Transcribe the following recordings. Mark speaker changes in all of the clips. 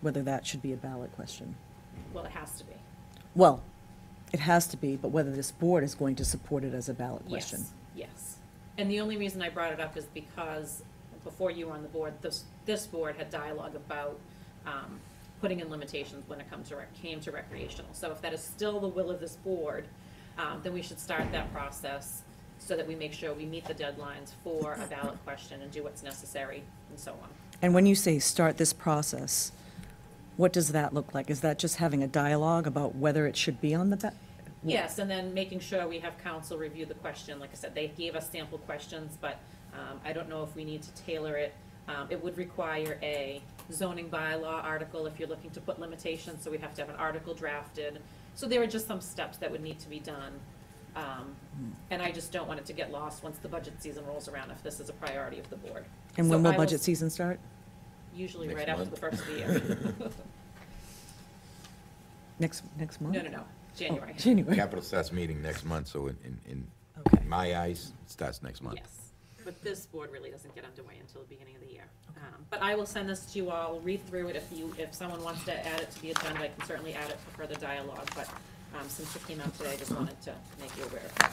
Speaker 1: whether that should be a ballot question.
Speaker 2: Well, it has to be.
Speaker 1: Well, it has to be, but whether this board is going to support it as a ballot question.
Speaker 2: Yes, yes. And the only reason I brought it up is because before you were on the board, this, this board had dialogue about um, putting in limitations when it comes to, rec- came to recreational. So if that is still the will of this board, um, then we should start that process so that we make sure we meet the deadlines for a ballot question and do what's necessary and so on.
Speaker 1: And when you say start this process, what does that look like? Is that just having a dialogue about whether it should be on the ba-
Speaker 2: Yes, and then making sure we have council review the question. Like I said, they gave us sample questions, but um, I don't know if we need to tailor it. Um, It would require a zoning bylaw article if you're looking to put limitations, so we'd have to have an article drafted. So there are just some steps that would need to be done. Um,
Speaker 1: Hmm.
Speaker 2: And I just don't want it to get lost once the budget season rolls around, if this is a priority of the board.
Speaker 1: And
Speaker 2: So
Speaker 1: when
Speaker 2: I
Speaker 1: will budget season start?
Speaker 2: Usually
Speaker 3: Next
Speaker 2: right after the
Speaker 3: month.
Speaker 2: first of the year.
Speaker 1: Next, next month?
Speaker 2: No, no, no,
Speaker 1: Oh,
Speaker 2: January.
Speaker 1: January.
Speaker 3: Capital starts meeting next month, so in, in- in,
Speaker 1: Okay.
Speaker 3: in my eyes, it starts next month.
Speaker 2: Yes, but this board really doesn't get underway until the beginning of the year. Um, But I will send this to you all, read through it, if you, if someone wants to add it to the agenda, I can certainly add it for further dialogue, but um, since it came out today, I just wanted to make you aware of that.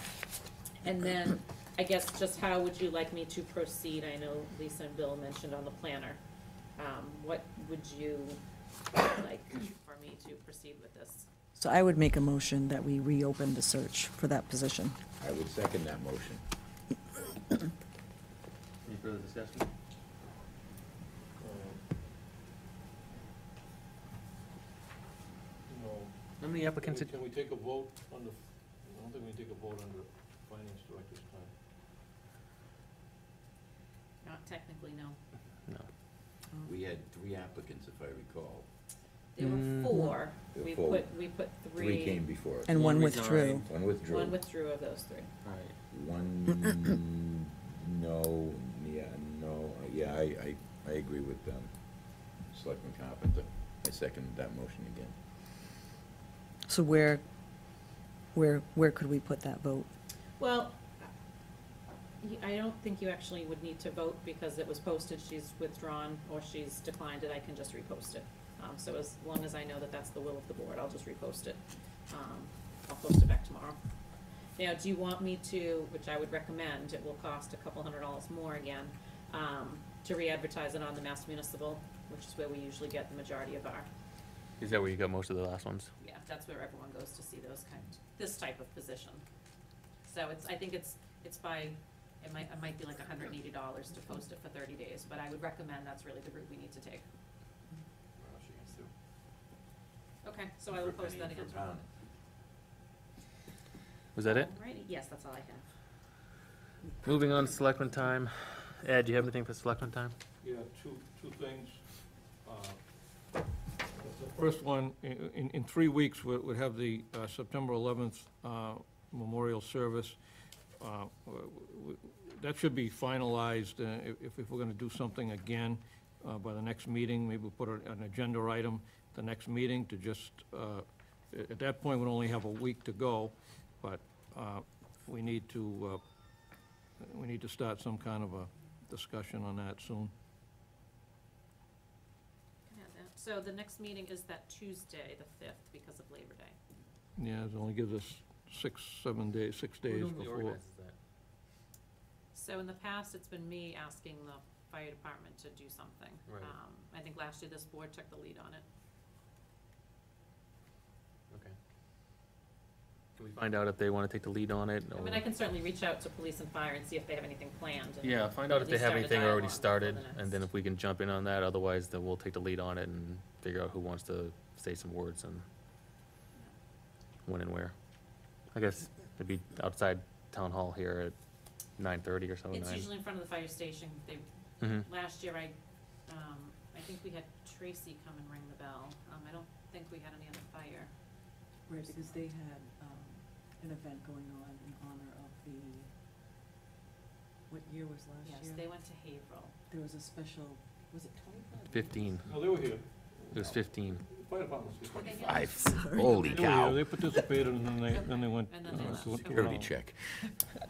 Speaker 2: And then, I guess, just how would you like me to proceed? I know Lisa and Bill mentioned on the planner. Um, What would you like for me to proceed with this?
Speaker 1: So I would make a motion that we reopen the search for that position.
Speaker 3: I would second that motion.
Speaker 4: Any further discussion?
Speaker 5: No.
Speaker 4: How many applicants, did-
Speaker 5: Can we take a vote on the, I don't think we can take a vote on the finance director's time.
Speaker 2: Not technically, no.
Speaker 4: no.
Speaker 3: We had three applicants, if I recall.
Speaker 2: There were
Speaker 4: Mm.
Speaker 2: four,
Speaker 3: There were
Speaker 2: we
Speaker 3: four.
Speaker 2: put, we put
Speaker 3: Three came before us.
Speaker 1: And one
Speaker 4: One
Speaker 1: withdrew.
Speaker 4: resigned.
Speaker 3: One withdrew.
Speaker 2: One withdrew of those three.
Speaker 4: All right.
Speaker 3: One, no, yeah, no, yeah, I, I, I agree with, um, Selectman Carpenter. I second that motion again.
Speaker 1: So where, where, where could we put that vote?
Speaker 2: Well, y- I don't think you actually would need to vote because it was posted, she's withdrawn or she's declined it, I can just repost it. Um, so as long as I know that that's the will of the board, I'll just repost it. Um, I'll post it back tomorrow. Now, do you want me to, which I would recommend, it will cost a couple hundred dollars more again, um, to re-advertise it on the Mass Municipal, which is where we usually get the majority of our
Speaker 4: Is that where you got most of the last ones?
Speaker 2: yeah, that's where everyone goes to see those kind, this type of position. So it's, I think it's, it's by, it might, it might be like hundred and eighty dollars to post it for thirty days, but I would recommend that's really the route we need to take. Okay, so I will post that again.
Speaker 4: Was that it?
Speaker 2: Alrighty, yes, that's all I have.
Speaker 4: Moving on to selectman time. Ed, do you have anything for selectman time?
Speaker 5: Yeah, two, two things. Uh, The first one, i- in, in three weeks, we would have the uh, September 11th uh, memorial service. Uh, w- w- That should be finalized, uh, if, if we're gonna do something again uh, by the next meeting, maybe we'll put a- an agenda item the next meeting to just, uh, a- at that point, we'll only have a week to go, but uh, we need to, uh, we need to start some kind of a discussion on that soon.
Speaker 2: Can I have that? So the next meeting is that Tuesday, the fifth, because of Labor Day.
Speaker 5: Yeah, it only gives us six, seven days, six days before.
Speaker 2: So in the past, it's been me asking the fire department to do something.
Speaker 4: Right.
Speaker 2: Um, I think last year this board took the lead on it.
Speaker 4: Can we find out if they want to take the lead on it?
Speaker 2: I mean, I can certainly reach out to police and fire and see if they have anything planned. and-
Speaker 4: Yeah, find out if
Speaker 2: At
Speaker 4: they
Speaker 2: least
Speaker 4: have
Speaker 2: start a
Speaker 4: anything already
Speaker 2: dialogue for
Speaker 4: started,
Speaker 2: the
Speaker 4: and then
Speaker 2: next.
Speaker 4: if we can jump in on that, otherwise then we'll take the lead on it and figure out who wants to say some words and when and where. I guess it'd be outside town hall here at nine thirty or so,
Speaker 2: It's
Speaker 4: Oh, nine.
Speaker 2: usually in front of the fire station. They,
Speaker 4: Mhm.
Speaker 2: last year I, um, I think we had Tracy come and ring the bell. Um, I don't think we had any other fire.
Speaker 6: Right, because they had, um, an event going on in honor of the, what year was last
Speaker 2: Yes,
Speaker 6: year?
Speaker 2: they went to Haverhill.
Speaker 6: There was a special, was it twenty-five?
Speaker 4: Fifteen,
Speaker 5: No, they were here.
Speaker 4: it was fifteen.
Speaker 5: Fire department's here.
Speaker 2: Okay, yeah.
Speaker 3: Five, holy
Speaker 5: They were here,
Speaker 3: cow.
Speaker 5: They participated and then they, then they went.
Speaker 2: And then they
Speaker 5: uh,
Speaker 2: left.
Speaker 5: to- to
Speaker 3: Security
Speaker 5: another.
Speaker 3: check.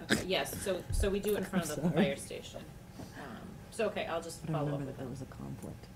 Speaker 2: Okay, Yes, so, so we do in front of the
Speaker 1: Sorry.
Speaker 2: fire station. Um, So, okay, I'll just
Speaker 1: But I
Speaker 2: follow up
Speaker 1: remember
Speaker 2: with
Speaker 1: that there
Speaker 2: them.
Speaker 1: was a conflict.